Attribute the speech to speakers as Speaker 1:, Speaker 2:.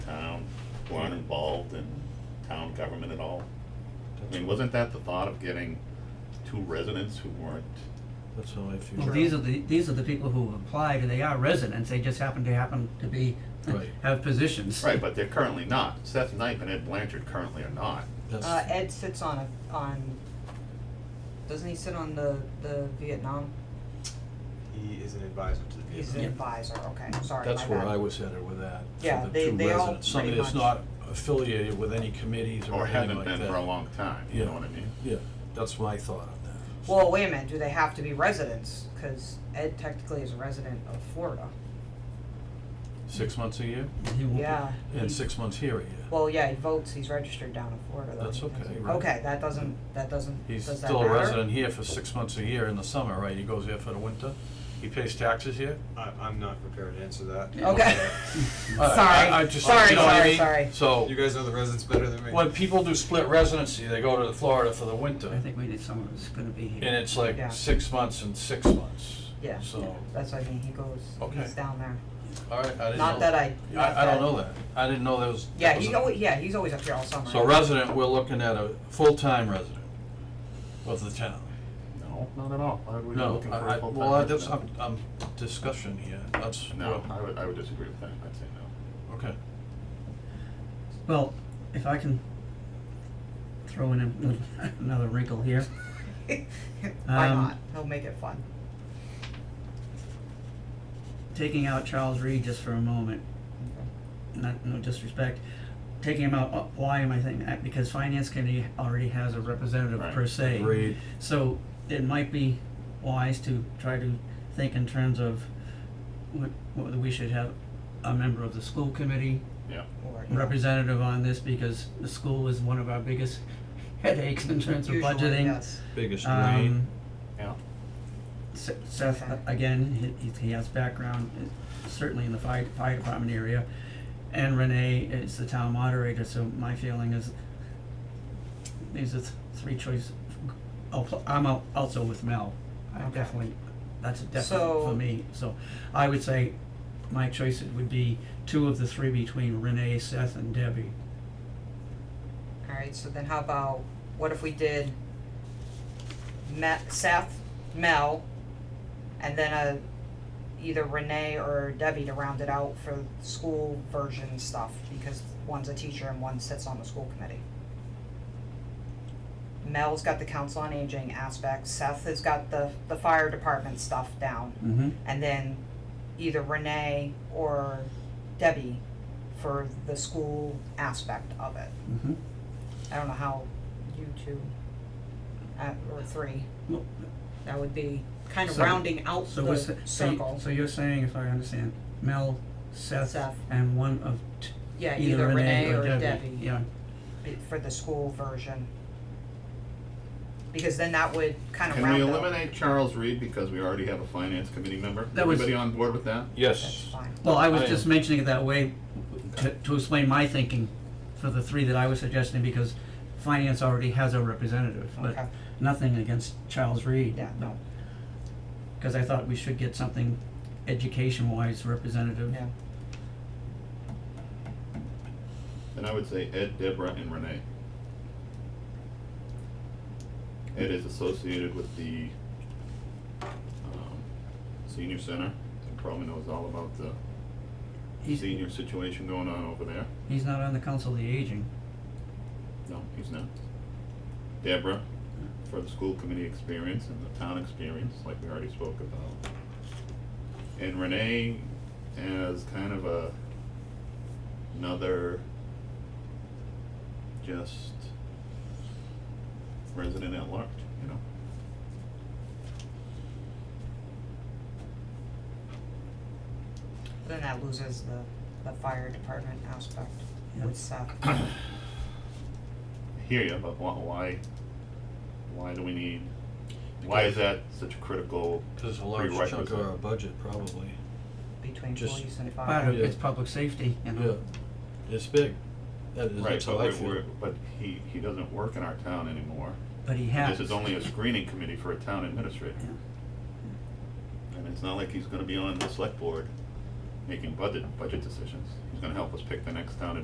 Speaker 1: weren't involved in town government at all? I mean, wasn't that the thought of getting two residents who weren't,
Speaker 2: That's how I feel.
Speaker 3: Well, these are the, these are the people who have applied, and they are residents, they just happen to happen to be,
Speaker 2: Right.
Speaker 3: have positions.
Speaker 1: right, but they're currently not. Seth Knipe and Ed Blanchard currently are not.
Speaker 2: That's-
Speaker 4: Uh, Ed sits on a, on, doesn't he sit on the, the Vietnam?
Speaker 5: He is an advisor to the
Speaker 4: He's
Speaker 5: Vietnam.
Speaker 4: an
Speaker 3: Yeah.
Speaker 4: advisor, okay, sorry, my
Speaker 2: That's where
Speaker 4: bad.
Speaker 2: I was headed with that,
Speaker 4: Yeah,
Speaker 2: for the
Speaker 4: they-
Speaker 2: two
Speaker 4: they all
Speaker 2: residents, somebody
Speaker 4: pretty
Speaker 2: that's
Speaker 4: much-
Speaker 2: not affiliated with any committees or
Speaker 1: Or
Speaker 2: anything
Speaker 1: haven't
Speaker 2: like that.
Speaker 1: been for a long time, you know what I mean?
Speaker 2: Yeah, that's my thought on that.
Speaker 4: Well, wait a minute, do they have to be residents? Cause Ed technically is a resident of Florida.
Speaker 2: Six months a year,
Speaker 3: He won't be-
Speaker 4: Yeah,
Speaker 2: and six months here a year.
Speaker 4: well, yeah, he votes, he's registered down in Florida though.
Speaker 2: That's
Speaker 4: He doesn't-
Speaker 2: okay, right.
Speaker 4: Okay, that doesn't, that doesn't,
Speaker 2: He's
Speaker 4: does that
Speaker 2: still a
Speaker 4: matter?
Speaker 2: resident here for six months a year in the summer, right? He goes here for the winter, he pays taxes here?
Speaker 5: I, I'm not prepared to answer that.
Speaker 4: Okay.
Speaker 2: All right, I- I
Speaker 4: Sorry,
Speaker 2: just-
Speaker 4: sorry,
Speaker 2: you know what I
Speaker 4: sorry,
Speaker 2: mean?
Speaker 4: sorry.
Speaker 5: You
Speaker 2: So,
Speaker 5: guys know the residents better than me.
Speaker 2: when people do split residency, they go to Florida for the winter,
Speaker 3: I think we need someone who's gonna be here.
Speaker 2: and it's like
Speaker 4: Yeah.
Speaker 2: six months and six months.
Speaker 4: Yeah.
Speaker 2: So,
Speaker 4: That's what I mean, he goes,
Speaker 2: Okay.
Speaker 4: he's down there.
Speaker 2: all right, I didn't know.
Speaker 4: Not that I, not
Speaker 2: I, I
Speaker 4: that-
Speaker 2: don't know that. I didn't know that was. that
Speaker 4: Yeah,
Speaker 2: was
Speaker 4: he
Speaker 2: a-
Speaker 4: always, yeah, he's always up here all summer.
Speaker 2: So resident, we're looking at a full-time resident of the town.
Speaker 1: No, not at all. Why would we be
Speaker 2: No,
Speaker 1: looking
Speaker 2: I,
Speaker 1: for
Speaker 2: I,
Speaker 1: a full-time
Speaker 2: well, I- that's, I'm,
Speaker 1: resident?
Speaker 2: I'm discussion here, that's.
Speaker 1: No,
Speaker 2: what-
Speaker 1: I would, I would disagree with that. I'd say no.
Speaker 2: Okay,
Speaker 3: Well, if I can throw in a- another wrinkle here,
Speaker 4: Why
Speaker 3: Um,
Speaker 4: not? He'll make it fun.
Speaker 3: taking out Charles Reed just for a moment, not, no disrespect, taking him out, uh, why am I thinking that? Because finance committee already has a representative
Speaker 1: Right.
Speaker 3: per se.
Speaker 2: agreed,
Speaker 3: So it might be wise to try to think in terms of wh- whether we should have a member of the school committee,
Speaker 1: Yeah.
Speaker 4: Or, you know,
Speaker 3: representative on this, because the school is one of our biggest headaches in terms of budgeting.
Speaker 4: usually, yes.
Speaker 2: biggest
Speaker 3: Um,
Speaker 2: drain,
Speaker 1: Yeah.
Speaker 3: Se- Seth, uh,
Speaker 4: Okay.
Speaker 3: again, he- he, he has background, uh, certainly in the fire, fire department area. And Renee is the town moderator, so my feeling is these are th- three choice, oh, pl- I'm al- also with Mel. I
Speaker 4: Okay.
Speaker 3: definitely, that's a definite
Speaker 4: So-
Speaker 3: for me, so I would say my choice would be two of the three between Renee, Seth and Debbie.
Speaker 4: Alright, so then how about, what if we did Ma- Seth, Mel, and then a, either Renee or Debbie to round it out for school version stuff, because one's a teacher and one sits on the school committee. Mel's got the council on aging aspect, Seth has got the, the fire department stuff down.
Speaker 3: Mm-hmm.
Speaker 4: and then either Renee or Debbie for the school aspect of it.
Speaker 3: Mm-hmm.
Speaker 4: I don't know how you two, uh, or three,
Speaker 3: Well,
Speaker 4: that would be kind of
Speaker 3: So-
Speaker 4: rounding out
Speaker 3: So
Speaker 4: the
Speaker 3: what's, the- so you,
Speaker 4: circle.
Speaker 3: so you're saying, if I understand, Mel, Seth,
Speaker 4: Seth.
Speaker 3: and one of t-
Speaker 4: Yeah,
Speaker 3: either Renee or Debbie, yeah.
Speaker 4: be- for the school version. Because then that would kind of
Speaker 1: Can we
Speaker 4: round out.
Speaker 1: eliminate Charles Reed because we already have a finance committee member?
Speaker 3: That was-
Speaker 1: Everybody on board with that?
Speaker 4: That's
Speaker 2: yes.
Speaker 4: fine.
Speaker 3: Well, I was
Speaker 2: I
Speaker 3: just
Speaker 2: am.
Speaker 3: mentioning it that way to, to explain my thinking for the three that I was suggesting, because finance already has a representative,
Speaker 4: Okay.
Speaker 3: but nothing against Charles Reed.
Speaker 4: Yeah, no,
Speaker 3: Cause I thought we should get something education-wise representative.
Speaker 4: yeah,
Speaker 1: Then I would say Ed, Deborah, and Renee. Ed is associated with the um, senior center, and probably knows all about the
Speaker 3: He's,
Speaker 1: senior situation going on over there.
Speaker 3: he's not on the council of the aging,
Speaker 1: No, he's not. Deborah, for the school committee experience and the town experience, like we already spoke about. And Renee as kind of a, another, just resident at large, you know?
Speaker 4: then that loses the, the fire department aspect
Speaker 3: Yeah.
Speaker 4: with Seth.
Speaker 1: I hear you, but why- why, why do we need, why is that such a critical,
Speaker 2: There's a large chunk of
Speaker 1: Prerequisite.
Speaker 2: our budget, probably,
Speaker 4: between
Speaker 2: Just-
Speaker 4: police and fire.
Speaker 3: part of
Speaker 2: Yeah.
Speaker 3: it's public safety, you know?
Speaker 2: yeah, it's big, that is,
Speaker 1: right,
Speaker 2: that's
Speaker 1: but
Speaker 2: how I
Speaker 1: we're,
Speaker 2: feel.
Speaker 1: we're, but he, he doesn't work in our town anymore.
Speaker 3: But he
Speaker 1: And
Speaker 3: has.
Speaker 1: This is only a screening committee for a town administrator. And it's not like he's gonna be on the select board making budget, budget decisions. He's gonna help us pick the next town